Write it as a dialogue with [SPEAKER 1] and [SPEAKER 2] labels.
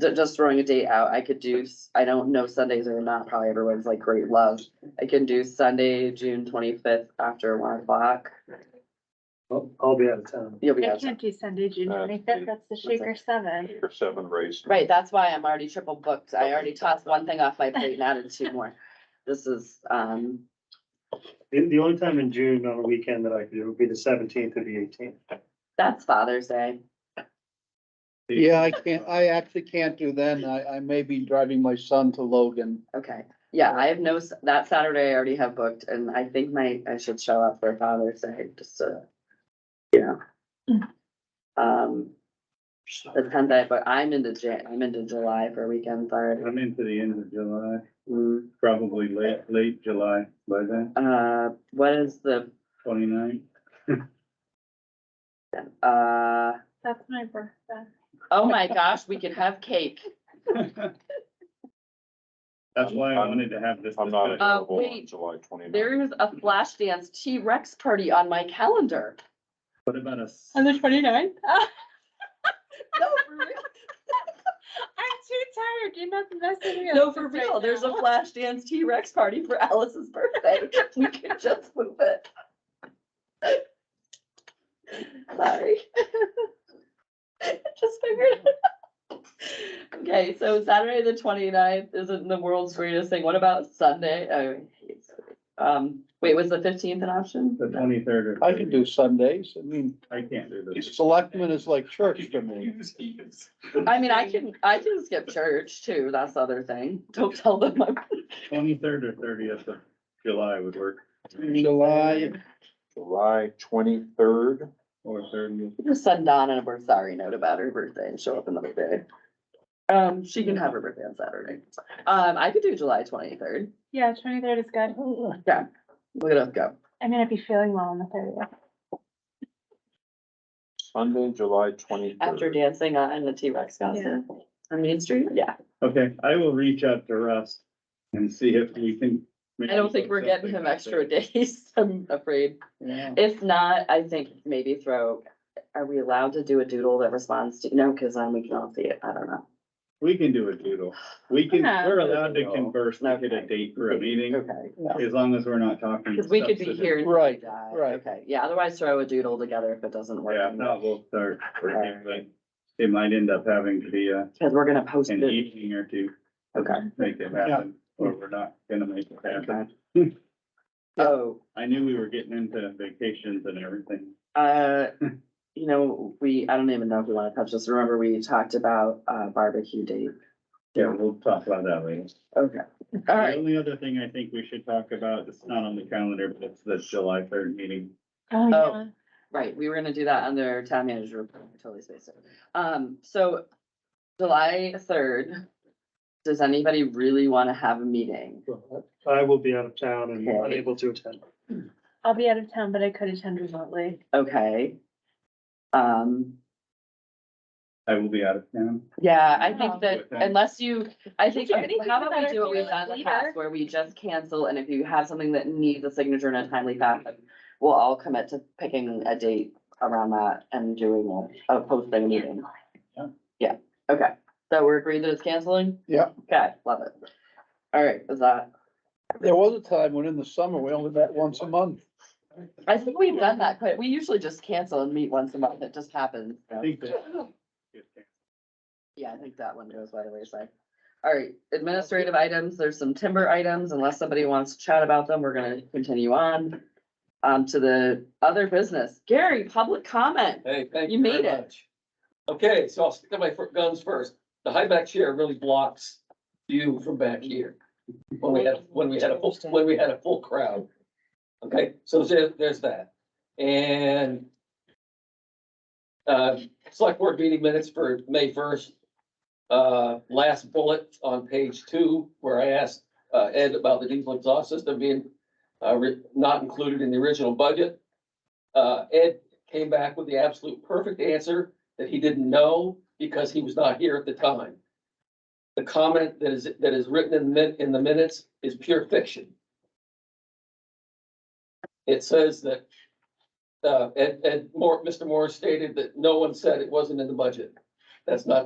[SPEAKER 1] ju- just throwing a date out, I could do, s- I don't know Sundays are not probably everyone's like great love. I can do Sunday, June twenty-fifth after one o'clock.
[SPEAKER 2] I'll, I'll be out of town.
[SPEAKER 1] You'll be
[SPEAKER 3] I
[SPEAKER 1] out.
[SPEAKER 3] can't do Sunday, June
[SPEAKER 4] Uh,
[SPEAKER 3] twenty-fifth, that's the Shaker Seven.
[SPEAKER 4] Or seven race.
[SPEAKER 1] Right, that's why I'm already triple booked. I already tossed one thing off my plate and added two more. This is, um,
[SPEAKER 2] The, the only time in June on a weekend that I could do would be the seventeenth or the eighteenth.
[SPEAKER 1] that's Father's Day.
[SPEAKER 5] Yeah, I can't, I actually can't do then. I, I may be driving my son to Logan.
[SPEAKER 1] Okay, yeah, I have no, s- that Saturday I already have booked and I think my, I should show up for Father's Day, just to, you know. Um, the tenth day, but I'm into Jan, I'm into July for weekends already.
[SPEAKER 6] I'm into the end of July,
[SPEAKER 1] Mm,
[SPEAKER 6] probably late, late July by then,
[SPEAKER 1] Uh, what is the,
[SPEAKER 6] twenty-nine.
[SPEAKER 1] uh,
[SPEAKER 3] That's my birthday.
[SPEAKER 1] oh my gosh, we can have cake.
[SPEAKER 6] That's why I wanted to have this.
[SPEAKER 4] I'm not
[SPEAKER 6] discussion.
[SPEAKER 4] available on
[SPEAKER 1] Uh, wait.
[SPEAKER 4] July twenty ninth.
[SPEAKER 1] There is a flash dance T-Rex party on my calendar.
[SPEAKER 6] What about a, s-
[SPEAKER 3] On the twenty-ninth?
[SPEAKER 1] No, for real.
[SPEAKER 3] I'm too tired, you're not messing me up.
[SPEAKER 1] No, for real, there's a flash dance T-Rex party for Alice's birthday. We could just move it. Sorry. Just figured. it out. Okay, so Saturday, the 29th isn't the world's greatest thing. What about Sunday? Oh, I hate Sunday. Um, wait, was the fifteenth an option?
[SPEAKER 6] the twenty-third or?
[SPEAKER 5] I can do Sundays. I mean,
[SPEAKER 6] 30th? I can't do this.
[SPEAKER 5] selectmen is like church to me.
[SPEAKER 1] I mean, I can, I can skip church too. That's the other thing. Don't tell them I'm
[SPEAKER 6] Twenty-third or thirtieth of July would work,
[SPEAKER 5] July,
[SPEAKER 4] July twenty-third,
[SPEAKER 6] or thirtieth.
[SPEAKER 1] Just send Donna a we're sorry note about her birthday and show up another day. Um, she can have her birthday on Saturday. Um, I could do July twenty-third.
[SPEAKER 3] Yeah, twenty-third is good.
[SPEAKER 1] Yeah, look it up, go.
[SPEAKER 3] I'm gonna be feeling well on the thirtieth.
[SPEAKER 4] Sunday, July twenty-third.
[SPEAKER 1] After dancing on the T-Rex concert. On Main Street? Yeah.
[SPEAKER 6] Okay, I will reach out to Russ and see if we can.
[SPEAKER 1] I don't think we're getting him extra days, I'm afraid.
[SPEAKER 5] yeah.
[SPEAKER 1] If not, I think maybe throw, are we allowed to do a doodle that responds to, no, because then we can all see it. I don't know.
[SPEAKER 6] We can do a doodle, we can,
[SPEAKER 3] Yeah.
[SPEAKER 6] we're allowed to converse, to get a date for a meeting,
[SPEAKER 1] Okay.
[SPEAKER 6] as long as we're not talking.
[SPEAKER 1] Because we could be
[SPEAKER 6] substantive.
[SPEAKER 1] here. and
[SPEAKER 5] Right,
[SPEAKER 1] die.
[SPEAKER 5] right.
[SPEAKER 1] Okay, yeah, otherwise throw a doodle together if it doesn't work.
[SPEAKER 6] Yeah, if not, we'll start, working, but it might end up having to be a,
[SPEAKER 1] Because we're gonna post
[SPEAKER 6] an
[SPEAKER 1] it.
[SPEAKER 6] evening or two.
[SPEAKER 1] Okay.
[SPEAKER 6] to Make it happen, or we're not gonna make it happen.
[SPEAKER 1] Oh.
[SPEAKER 6] I knew we were getting into vacations and everything.
[SPEAKER 1] Uh, you know, we, I don't even know if we wanna touch this, remember we talked about uh barbecue date.
[SPEAKER 6] Yeah, we'll talk about that later.
[SPEAKER 1] Okay,
[SPEAKER 6] The
[SPEAKER 1] alright,
[SPEAKER 6] only other thing I think we should talk about, it's not on the calendar, but it's the July third meeting.
[SPEAKER 3] Oh,
[SPEAKER 1] yeah. right, we were gonna do that under town manager, report. I totally spaced it. Um, so July third, does anybody really wanna have a meeting?
[SPEAKER 2] I will be out of town and
[SPEAKER 1] Okay.
[SPEAKER 2] unable to attend.
[SPEAKER 3] I'll be out of town, but I could attend remotely.
[SPEAKER 1] Okay. Um,
[SPEAKER 6] I will be out of town.
[SPEAKER 1] yeah, I think
[SPEAKER 3] Oh.
[SPEAKER 1] that unless you, I think,
[SPEAKER 3] Would you
[SPEAKER 1] okay,
[SPEAKER 3] anything
[SPEAKER 1] how about
[SPEAKER 3] better
[SPEAKER 1] we do
[SPEAKER 3] if
[SPEAKER 1] what
[SPEAKER 3] you
[SPEAKER 1] we've
[SPEAKER 3] were
[SPEAKER 1] done in the
[SPEAKER 3] leader?
[SPEAKER 1] past, where we just cancel, and if you have something that needs a signature in a timely fashion, we'll all commit to picking a date around that and doing a, a posting meeting.
[SPEAKER 6] Yeah.
[SPEAKER 1] Yeah, okay, so we're agreed that it's canceling?
[SPEAKER 5] Yeah.
[SPEAKER 1] Okay, love it. All right, is that,
[SPEAKER 5] There was a time when in the summer, we only met once a month.
[SPEAKER 1] I think we've done that quite, we usually just cancel and meet once a month, it just happens. so.
[SPEAKER 6] I think that.
[SPEAKER 1] Yeah, I think that one goes by the wayside. All right, administrative items, there's some timber items, unless somebody wants to chat about them, we're gonna continue on. Um, to the other business, Gary, public comment,
[SPEAKER 7] Hey, thank
[SPEAKER 1] You
[SPEAKER 7] you very
[SPEAKER 1] made it.
[SPEAKER 7] much. Okay, so I'll stick to my fir- guns first. The high back chair really blocks view from back here. When we had, when we had a full, when we had a full crowd. Okay, so there, there's that. And uh, select board meeting minutes for May first. Uh, last bullet on page two, where I asked uh, Ed about the diesel exhaust system being uh, re- not included in the original budget. Uh, Ed came back with the absolute perfect answer that he didn't know because he was not here at the time. The comment that is, that is written in the, min- in the minutes is pure fiction. It says that, uh, and, and more, Mr. Moore stated that no one said it wasn't in the budget. That's not